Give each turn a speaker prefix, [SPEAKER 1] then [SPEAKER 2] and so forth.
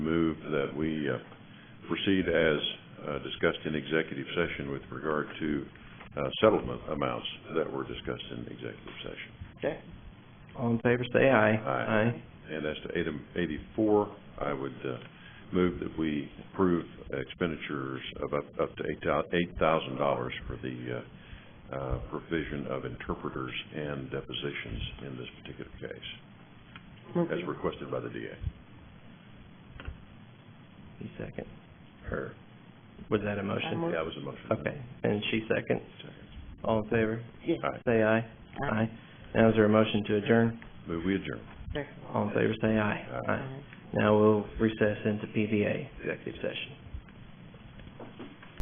[SPEAKER 1] that we uh, proceed as uh, discussed in executive session with regard to uh, settlement amounts that were discussed in executive session.
[SPEAKER 2] Okay. All in favor, say aye.
[SPEAKER 1] Aye. And as to item eighty-four, I would uh, move that we approve expenditures of up, up to eight thousand dollars for the uh, uh, provision of interpreters and depositions in this particular case, as requested by the DA.
[SPEAKER 2] You second.
[SPEAKER 1] Or,
[SPEAKER 2] Was that a motion?
[SPEAKER 1] yeah, that was a motion.
[SPEAKER 2] Okay, and she second. All in favor,
[SPEAKER 3] Yes.
[SPEAKER 1] All right,
[SPEAKER 2] say aye. Aye. Now is there a motion to adjourn?
[SPEAKER 1] move we adjourn.
[SPEAKER 2] All in favor, say aye.
[SPEAKER 1] Aye.
[SPEAKER 2] Now we'll recess into PVA executive session.